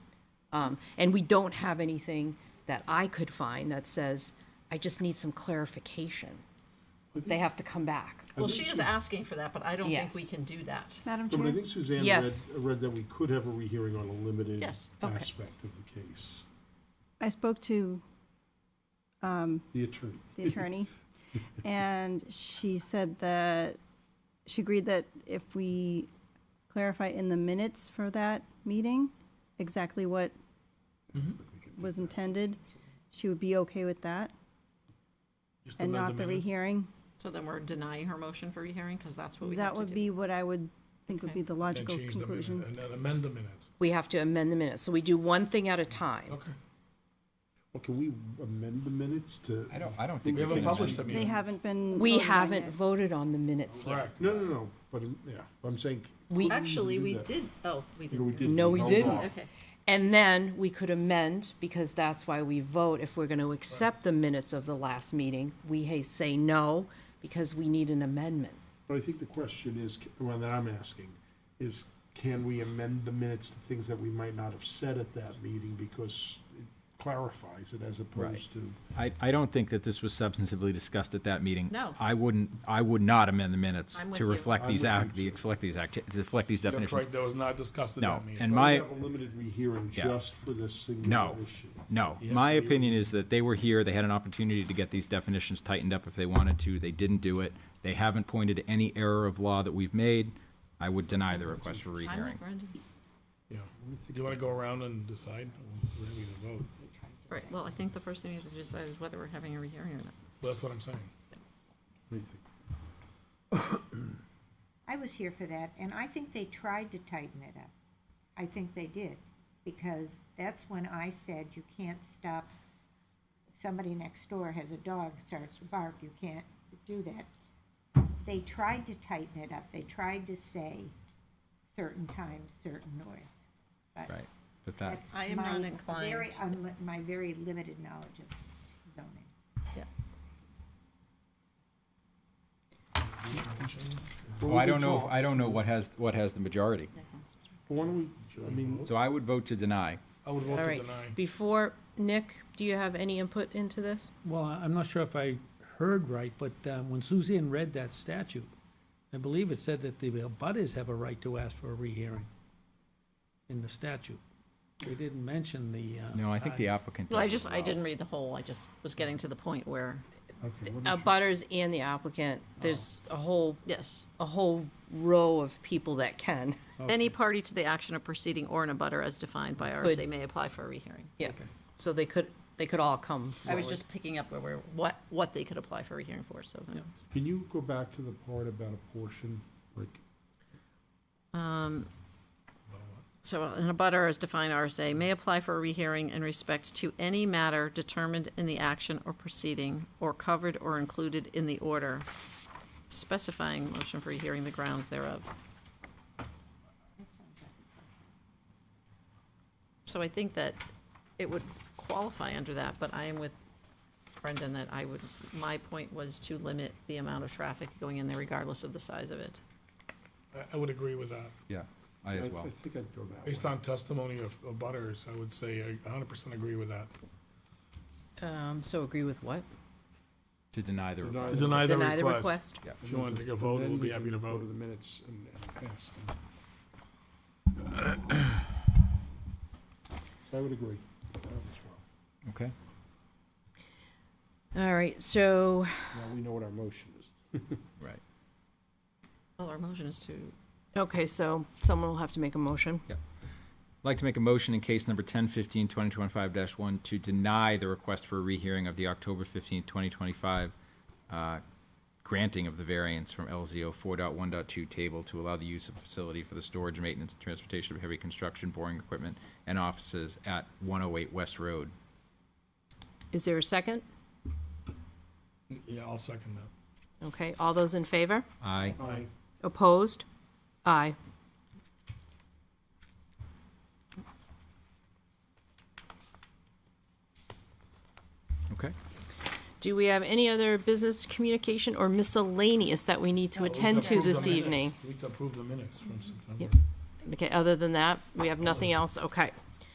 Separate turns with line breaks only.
Um, And we don't have anything that I could find that says, I just need some clarification. They have to come back.
Well, she is asking for that, but I don't think we
Yes.
can do that.
Madam
But I
Chair?
think Suzanne read,
Yes.
read that we could have a rehearing on a limited
Yes.
Okay.
aspect of the case,
I spoke to
the attorney.
the attorney, and she said that, she agreed that if we clarify in the minutes for that meeting exactly what
Mm-hmm.
was intended, she would be okay with that,
Just
and
amend
not the
minutes.
rehearing.
So then we're denying her motion for rehearing, because that's what we have
That
to
would
do.
be what I would think would
Okay.
be the
Then
logical
change the minute-
conclusion.
And then amend the minutes,
We have to amend the minutes. So we do one thing at a time.
okay.
Well, can we amend the minutes to?
I don't, I don't think.
We haven't
can
published
amend-
them
They
yet.
haven't been.
We
voted on
haven't
yet.
voted on the minutes yet.
Correct.
No, no, no, but, um, yeah, I'm saying,
We,
Actually, we
that.
did, oh, we
you know, we
did.
did.
No, we
held
didn't.
off.
Okay,
and then we could amend, because that's why we vote. If we're going to accept the minutes of the last meeting, we ha- say no, because we need an amendment.
But I think the question is, c- well, that I'm asking, is can we amend the minutes to things that we might not have said at that meeting because it clarifies it as opposed to.
I, I don't think that this was substantively discussed at that meeting.
No.
I wouldn't, I would not amend the minutes
I'm with
to
you.
reflect
I'm
these
with you,
act,
too.
reflect these acti, to reflect these
You're
definitions.
correct, that was not discussed at
No,
that meeting.
and
Why
my-
Have a limited rehearing
Yeah.
just for this singular
No,
issue.
no.
Yes,
My
they were.
opinion is that they were here, they had an opportunity to get these definitions tightened up if they wanted to, they didn't do it. They haven't pointed to any error of law that we've made. I would deny the request for
I'm
rehearing.
with Brendan.
Yeah. Do you want to go around and decide? We're ready to vote.
Right, well, I think the first thing we have to decide is whether we're having a rehearing or not.
That's what I'm saying.
What do you think?
I was here for that, and I think they tried to tighten it up. I think they did, because that's when I said you can't stop, if somebody next door has a dog, starts to bark, you can't do that. They tried to tighten it up, they tried to say certain times, certain noise. But
Right, but that,
that's
I am
my
not inclined.
very unli- My very limited knowledge of zoning.
well, I don't know, if- I don't know what has, what has the majority.
Why don't we, I mean,
So I would vote to deny.
I would vote
All
to
right.
deny.
Before, Nick, do you have any input into this?
Well, I- I'm not sure if I heard right, but um, when Suzanne read that statute, I believe it said that the abutters have a right to ask for a rehearing in the statute. They didn't mention the. uh,
No, I think the applicant does
No, I
as
just, I
well.
didn't read the whole, I just was getting to the point where,
Uh, Butters and the applicant, there's a whole,
yes,
a whole row of people that can.
any party to the action of proceeding or in a butter as defined by RSA may apply for a rehearing.
Yeah, so they could, they could all come
I was
forward.
just picking up where, we're what, what they could apply for a rehearing for, so.
Can you go back to the part about a portion, like,
So an abutter, as defined RSA, may apply for a rehearing in respect to any matter determined in the action or proceeding or covered or included in the order specifying motion for rehearing the grounds thereof. So I think that it would qualify under that, but I am with Brendan that I would, my point was to limit the amount of traffic going in there regardless of the size of it.
I- I would agree with that.
Yeah, I
I I
as well.
think I'd go that way.
Based on testimony of of butters, I would say I 100% agree with that.
Um, so agree with what?
To deny the
Deny
request.
To deny the
Deny the
request.
request?
Yeah.
If you want to take a
And
vote,
then
we'll
we
be happy
can
to
Go to
vote.
the minutes and and pass them. So I would agree. with that as well.
Okay.
All right, so,
Now we know what our motion is.
Right.
Well, our motion is to
okay, so someone will have to make a motion.
I'd like to make a motion in case number 1015, 2025-1 to deny the request for a rehearing of the October 15, 2025 uh, granting of the variance from LZO 4.1.2 table to allow the use of facility for the storage, maintenance, and transportation of heavy construction, boring equipment, and offices at 108 West Road.
Is there a second?
Yeah, I'll second that.
Okay, all those in favor?
Aye.
Aye.
Opposed? Aye.
Okay.
Do we have any other business communication or miscellaneous that we need to attend to
Approve the
this
minutes.
evening?
We need to approve the minutes from September.
Okay, other than that, we have nothing else? Okay.